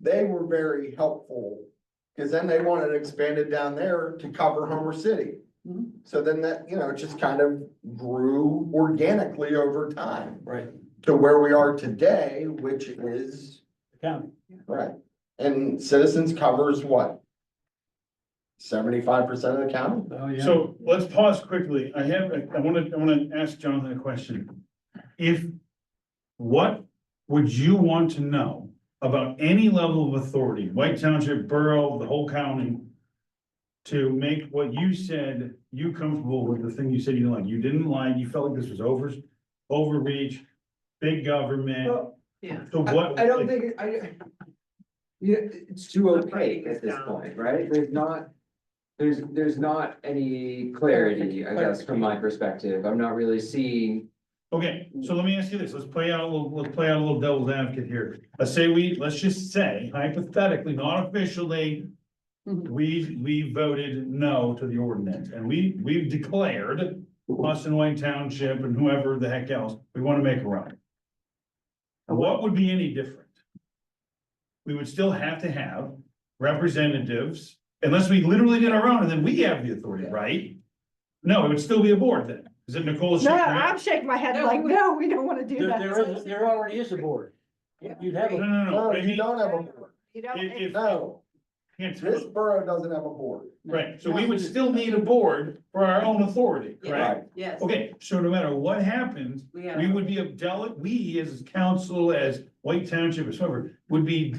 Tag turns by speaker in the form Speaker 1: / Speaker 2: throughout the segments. Speaker 1: they were very helpful. Cause then they wanted it expanded down there to cover Homer City.
Speaker 2: Mm-hmm.
Speaker 3: Mhm.
Speaker 1: So then that, you know, it just kind of grew organically over time
Speaker 4: Right.
Speaker 1: to where we are today, which is,
Speaker 4: County.
Speaker 1: right, and citizens covers what? Seventy-five percent of the county?
Speaker 4: Oh, yeah.
Speaker 5: So let's pause quickly. I have, a- I want to, I want to ask Jonathan a question. If, what would you want to know about any level of authority, White Township, Borough, the whole county? To make what you said, you comfortable with the thing you said you didn't like. You didn't like, you felt like this was over, overreach, big government.
Speaker 3: Well, yeah.
Speaker 5: So what?
Speaker 2: I don't think, it- I. Yeah, it's too
Speaker 3: Not
Speaker 2: opaque
Speaker 3: breaking
Speaker 2: at
Speaker 3: this
Speaker 2: this
Speaker 3: down.
Speaker 2: point, right? There's not. There's, there's not any clarity, I guess, from my perspective. I'm not really seeing.
Speaker 5: Okay, so let me ask you this, let's play out a little, let's play out a little devil's advocate here. Let's say we, let's just say hypothetically, not officially.
Speaker 3: Mhm.
Speaker 5: We, we voted no to the ordinance and we, we've declared us and Wayne Township and whoever the heck else, we wanna make a run. What would be any different? We would still have to have representatives unless we literally did our own and then we have the authority, right? No, it would still be a board then. Is it Nicole's?
Speaker 3: No, I'm shaking my head like, no, we don't wanna do
Speaker 4: There,
Speaker 3: that.
Speaker 4: there is, there already is a board. You'd have,
Speaker 5: No,
Speaker 4: a-
Speaker 5: no, no, no.
Speaker 1: No,
Speaker 5: but I
Speaker 1: Oh, you
Speaker 5: mean,
Speaker 1: don't have a board.
Speaker 3: You don't,
Speaker 5: If-
Speaker 3: it's-
Speaker 5: if-
Speaker 1: No,
Speaker 5: can't tell
Speaker 1: this
Speaker 5: it.
Speaker 1: borough doesn't have a board.
Speaker 5: Right, so we would still need a board for our own authority, correct?
Speaker 1: Right.
Speaker 3: yes.
Speaker 5: Okay, so no matter what happens,
Speaker 3: We
Speaker 5: we
Speaker 3: have,
Speaker 5: would be a delegate, we as council, as White Township, as whoever, would be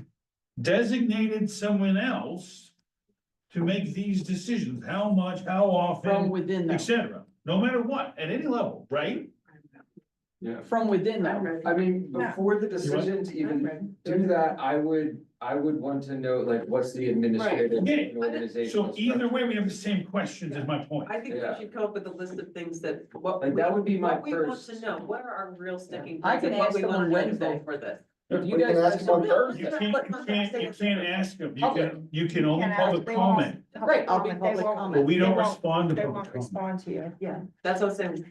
Speaker 5: designated someone else to make these decisions, how much, how
Speaker 6: From
Speaker 5: often,
Speaker 6: within
Speaker 5: et
Speaker 6: that,
Speaker 5: cetera, no matter what, at any level, right?
Speaker 6: from within that.
Speaker 3: I'm ready.
Speaker 2: I mean,
Speaker 3: No.
Speaker 2: before the decision to even do that, I would, I would want to know, like, what's the administrative
Speaker 5: Okay.
Speaker 2: and organizational.
Speaker 5: So either
Speaker 2: structure?
Speaker 5: way, we have the same questions, is my point.
Speaker 7: I think we
Speaker 2: Yeah.
Speaker 7: should come up with a list of things that, what.
Speaker 2: Like,
Speaker 7: we-
Speaker 2: that would be my
Speaker 7: What we want
Speaker 2: first-
Speaker 7: to know, what are our real sticking
Speaker 6: I
Speaker 7: points and
Speaker 6: can
Speaker 7: what
Speaker 6: ask
Speaker 7: we
Speaker 6: them
Speaker 7: want
Speaker 6: on
Speaker 7: to know
Speaker 6: Wednesday.
Speaker 7: for this.
Speaker 2: If you
Speaker 1: We can
Speaker 2: guys
Speaker 1: ask them on
Speaker 2: actually-
Speaker 1: Thursday.
Speaker 5: You can't, you can't, you can't ask them, you can, you can only
Speaker 3: Can't ask,
Speaker 5: public
Speaker 3: they won't-
Speaker 5: comment,
Speaker 6: Right, I'll be
Speaker 3: They
Speaker 6: public
Speaker 5: but
Speaker 3: won't-
Speaker 6: comment.
Speaker 5: we don't
Speaker 3: They won't-
Speaker 5: respond to
Speaker 3: They
Speaker 5: public
Speaker 3: won't
Speaker 5: comment.
Speaker 3: respond to you.
Speaker 7: Yeah, that's what I'm saying.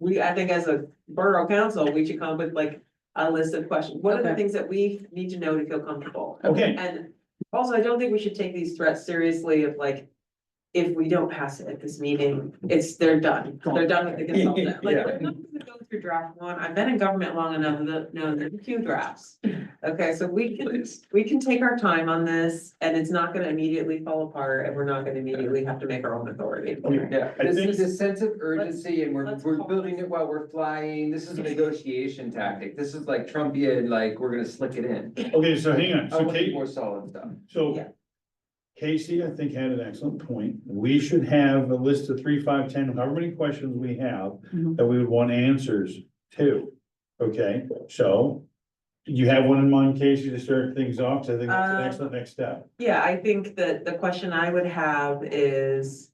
Speaker 7: We, I think as a borough council, we should come up with like a list of questions. What are the
Speaker 6: Okay.
Speaker 7: things that we need to know to feel comfortable?
Speaker 5: Okay,
Speaker 7: And also, I don't think we should take these threats seriously of like, if we don't pass it at this meeting, it's, they're done. They're done with the consultant. Like,
Speaker 4: Yeah.
Speaker 7: we're not gonna go through draft one. I've been in government long enough to know there are two drafts. Okay, so we can, we can take our time on this and it's not gonna immediately fall apart and we're not gonna immediately have to make our own authority.
Speaker 5: Okay.
Speaker 2: Yeah,
Speaker 5: I
Speaker 2: this
Speaker 5: think-
Speaker 2: is a sense of urgency and we're,
Speaker 7: let's
Speaker 2: we're
Speaker 7: pause.
Speaker 2: building it while we're flying. This is a negotiation tactic. This is like Trumpian, like, we're gonna slick it in.
Speaker 5: okay, so hang on,
Speaker 2: I
Speaker 5: so
Speaker 2: want
Speaker 5: Kate,
Speaker 2: more solid stuff.
Speaker 5: so
Speaker 7: Yeah.
Speaker 5: Casey, I think had an excellent point. We should have a list of three, five, ten, however many questions we have
Speaker 6: Mhm.
Speaker 5: that we would want answers to. Okay, so you have one in mind, Casey, to start things off, 'Cause I think that's an
Speaker 7: Um,
Speaker 5: excellent next step.
Speaker 7: Yeah, I think that the question I would have is,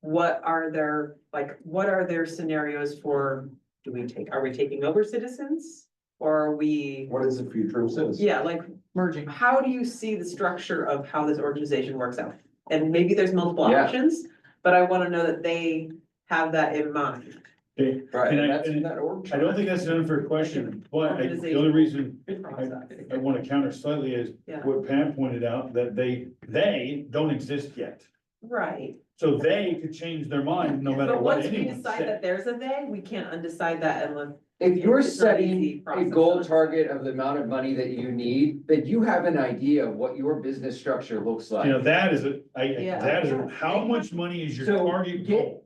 Speaker 7: what are their, like, what are their scenarios for, do we take, are we taking over citizens? Or are we,
Speaker 1: What is the future of citizens?
Speaker 7: yeah, like,
Speaker 6: Merging.
Speaker 7: how do you see the structure of how this organization works out? And maybe there's multiple
Speaker 2: Yeah.
Speaker 7: options, but I wanna know that they have that in mind.
Speaker 5: Okay,
Speaker 2: Right,
Speaker 5: And I-
Speaker 2: and that's in
Speaker 5: and
Speaker 2: that org
Speaker 5: I
Speaker 2: chart.
Speaker 5: don't think that's an unfair question, but I- the only reason I want to counter slightly is
Speaker 7: Yeah.
Speaker 5: what Pam pointed out, that they, they don't exist yet.
Speaker 7: Right,
Speaker 5: So they could change their mind no matter
Speaker 7: but
Speaker 5: what
Speaker 7: once we
Speaker 5: anyone
Speaker 7: decide
Speaker 5: said.
Speaker 7: that there's a they, we can't undecide that unless.
Speaker 2: If you're
Speaker 7: It's not an
Speaker 2: setting
Speaker 7: easy
Speaker 2: a
Speaker 7: process.
Speaker 2: goal target of the amount of money that you need, then you have an idea of what your business structure looks
Speaker 5: You know,
Speaker 2: like.
Speaker 5: that is, a I I-
Speaker 7: Yeah.
Speaker 5: that is, a- how much money is your
Speaker 2: So
Speaker 5: target
Speaker 2: get-
Speaker 5: goal?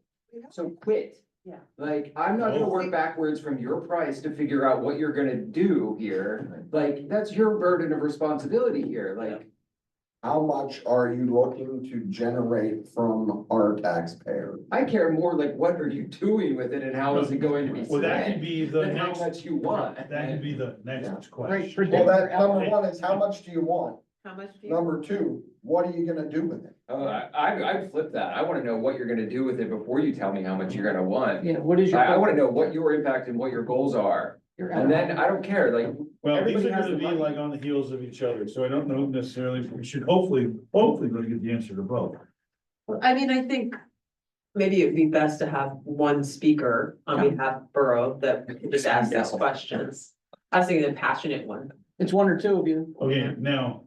Speaker 2: So quit.
Speaker 7: Yeah.
Speaker 2: Like, I'm not gonna work backwards from your price to figure out what you're gonna do here. Like, that's your burden of responsibility here, like.
Speaker 1: How much are you looking to generate from our taxpayer?
Speaker 2: I care more like what are you doing with it and how is it going to be
Speaker 5: Well, that could
Speaker 2: spent?
Speaker 5: be the
Speaker 2: Than how
Speaker 5: next,
Speaker 2: much you want.
Speaker 5: that could be the next
Speaker 6: Great.
Speaker 5: question.
Speaker 1: Well, that, number one is how much do you want?
Speaker 7: How much do you?
Speaker 1: Number two, what are you gonna do with it?
Speaker 2: Oh, I, I I'd flip that. I wanna know what you're gonna do with it before you tell me how much you're gonna want.
Speaker 6: Yeah, what is your?
Speaker 2: I, I wanna know what your impact and what your goals are. And then I don't care, like,
Speaker 5: Well, these
Speaker 2: Everybody
Speaker 5: are
Speaker 2: has
Speaker 5: gonna
Speaker 2: the
Speaker 5: be
Speaker 2: money.
Speaker 5: like on the heels of each other, so I don't know necessarily, we should hopefully, hopefully we'll get the answer to both.
Speaker 7: I mean, I think maybe it'd be best to have one speaker on behalf of Borough that can just asks those
Speaker 2: Yeah.
Speaker 7: questions. I was thinking the passionate one.
Speaker 6: It's one or two of you.
Speaker 5: Okay, now,